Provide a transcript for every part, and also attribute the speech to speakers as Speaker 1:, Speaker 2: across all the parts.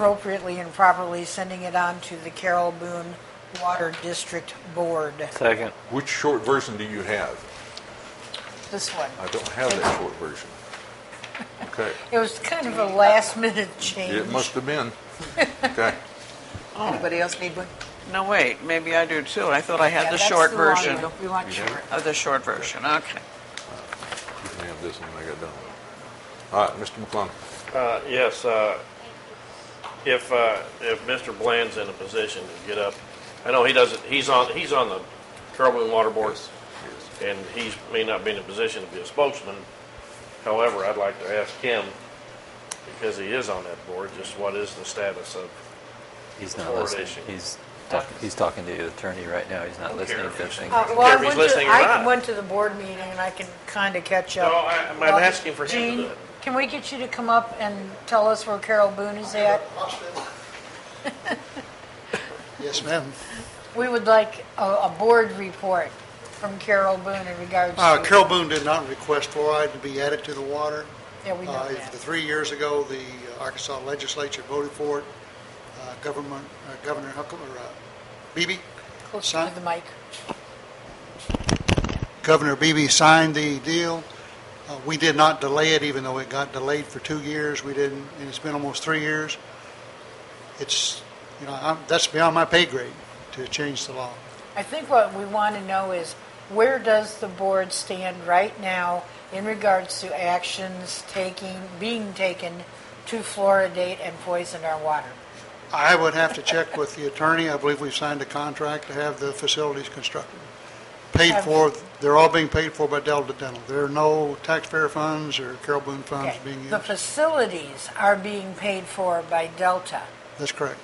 Speaker 1: appropriately and properly sending it on to the Carroll Boone Water District Board.
Speaker 2: Second.
Speaker 3: Which short version do you have?
Speaker 1: This one.
Speaker 3: I don't have that short version. Okay,
Speaker 1: It was kind of a last minute change.
Speaker 3: it must have been. Okay,
Speaker 4: Anybody else need one?
Speaker 5: No, wait, maybe I do too. I thought I
Speaker 1: Yeah,
Speaker 5: had the
Speaker 1: that's
Speaker 5: short
Speaker 1: long
Speaker 5: version
Speaker 1: one. We want short.
Speaker 5: of the short version. Okay.
Speaker 3: you can have this one when I get done. All right, Mr. McClung.
Speaker 6: Uh, Yes, uh, if, uh, if Mr. Bland's in a position to get up, I know he doesn't, he's on, he's on the Carroll and Water Board, and he may not be in a position to be a spokesman. However, I'd like to ask him, because he is on that board, just what is the status of,
Speaker 2: He's
Speaker 6: Before
Speaker 2: not
Speaker 6: it
Speaker 2: listening.
Speaker 6: issued.
Speaker 2: He's, talk- he's talking to the attorney right now. He's not
Speaker 6: Don't
Speaker 2: listening
Speaker 6: care
Speaker 2: to
Speaker 6: if
Speaker 2: the
Speaker 6: he's-
Speaker 2: thing.
Speaker 1: Uh, Well, I
Speaker 6: If he's
Speaker 1: went to,
Speaker 6: listening or
Speaker 1: I
Speaker 6: not.
Speaker 1: went to the board meeting and I can kind of catch up.
Speaker 6: No, I- I'm
Speaker 1: Well,
Speaker 6: asking for him to do
Speaker 1: Gene,
Speaker 6: it.
Speaker 1: can we get you to come up and tell us where Carol Boone is at?
Speaker 7: Yes, ma'am.
Speaker 1: We would like a, a board report from Carol Boone in regards
Speaker 7: Uh,
Speaker 1: to.
Speaker 7: Carol Boone did not request fluoride to be added to the water.
Speaker 1: Yeah, we know
Speaker 7: Uh,
Speaker 1: that.
Speaker 7: The three years ago, the uh, Arkansas legislature voted for it. Uh, Government, uh, Governor Huckle, or uh, Beebe,
Speaker 1: Closer to the mic.
Speaker 7: Governor Beebe signed the deal. Uh, We did not delay it, even though it got delayed for two years. We didn't, and it's been almost three years. It's, you know, I'm- that's beyond my pay grade to change the law.
Speaker 1: I think what we want to know is where does the board stand right now in regards to actions taking, being taken to fluoridate and poison our water?
Speaker 7: I would have to check with the attorney. I believe we've signed a contract to have the facilities constructed. Paid for, they're all being paid for by Delta Dental. There are no taxpayer funds or Carol Boone funds
Speaker 1: Okay.
Speaker 7: being
Speaker 1: The
Speaker 7: used.
Speaker 1: facilities are being paid for by Delta.
Speaker 7: That's correct.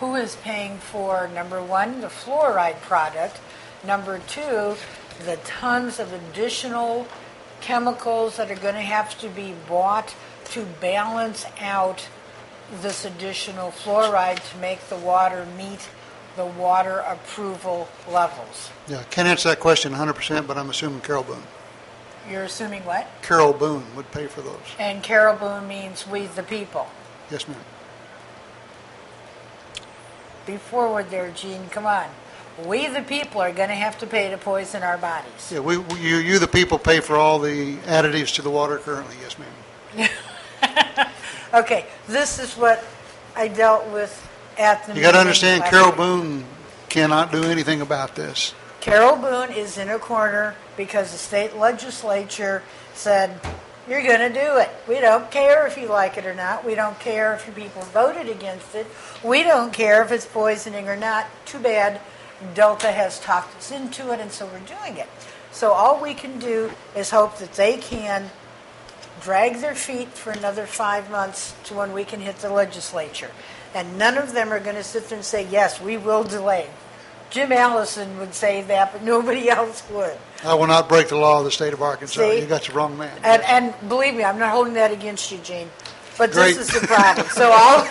Speaker 1: Who is paying for, number one, the fluoride product, number two, the tons of additional chemicals that are going to have to be bought to balance out this additional fluoride to make the water meet the water approval levels?
Speaker 7: Yeah, can't answer that question 100%, but I'm assuming Carol Boone.
Speaker 1: You're assuming what?
Speaker 7: Carol Boone would pay for those.
Speaker 1: And Caribou means we, the people.
Speaker 7: Yes, ma'am.
Speaker 1: Be forward there, Gene, come on. We, the people, are going to have to pay to poison our bodies.
Speaker 7: Yeah, we, we- you, you, the people, pay for all the additives to the water currently. Yes, ma'am.
Speaker 1: Okay, this is what I dealt with at the
Speaker 7: You
Speaker 1: meeting.
Speaker 7: got to understand,
Speaker 1: last
Speaker 7: Carol
Speaker 1: week.
Speaker 7: Boone cannot do anything about this.
Speaker 1: Carol Boone is in a corner because the state legislature said, you're going to do it. We don't care if you like it or not. We don't care if your people voted against it. We don't care if it's poisoning or not. Too bad Delta has talked us into it, and so we're doing it. So all we can do is hope that they can drag their feet for another five months to when we can hit the legislature. And none of them are going to sit there and say, yes, we will delay. Jim Allison would say that, but nobody else would.
Speaker 7: I will not break the law of the state of Arkansas.
Speaker 1: See?
Speaker 7: You got the wrong man.
Speaker 1: And, and believe me, I'm not holding that against you, Gene, but this
Speaker 7: Great.
Speaker 1: is the problem. So all,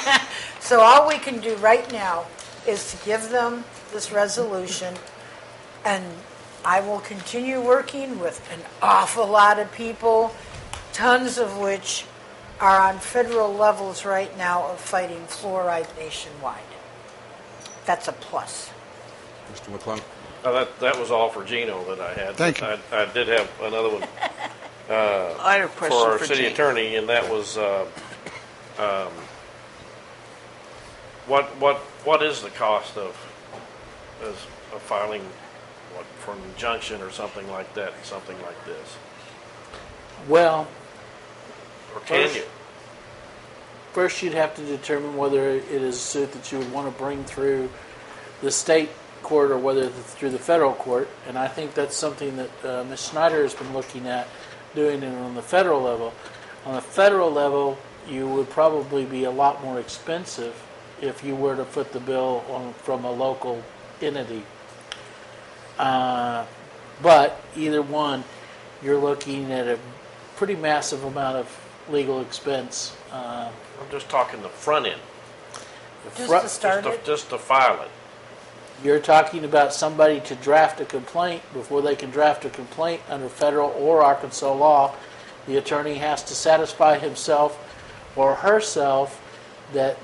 Speaker 1: so all we can do right now is to give them this resolution, and I will continue working with an awful lot of people, tons of which are on federal levels right now of fighting fluoride nationwide. That's a plus.
Speaker 3: Mr. McClung.
Speaker 6: uh, that, that was all for Gino that I had.
Speaker 7: Thank you.
Speaker 6: I- I did have another one
Speaker 5: I have a
Speaker 6: for
Speaker 5: question
Speaker 6: our
Speaker 5: for
Speaker 6: city
Speaker 5: Gene.
Speaker 6: attorney, and that was, uh, um, what, what, what is the cost of, is, of filing, what, for an injunction or something like that, something like this?
Speaker 8: Well,
Speaker 6: Or can you?
Speaker 8: first you'd have to determine whether it is a suit that you would want to bring through the state court or whether th- through the federal court. And I think that's something that uh, Ms. Snyder has been looking at doing it on the federal level. On the federal level, you would probably be a lot more expensive if you were to foot the bill on, from a local entity. Uh, but either one, you're looking at a pretty massive amount of legal expense. Uh,
Speaker 6: I'm just talking the front end,
Speaker 1: Just
Speaker 8: Right,
Speaker 1: to
Speaker 8: just
Speaker 1: start
Speaker 6: just
Speaker 1: it,
Speaker 6: to- just to file it.
Speaker 8: You're talking about somebody to draft a complaint. Before they can draft a complaint under federal or Arkansas law, the attorney has to satisfy himself or herself that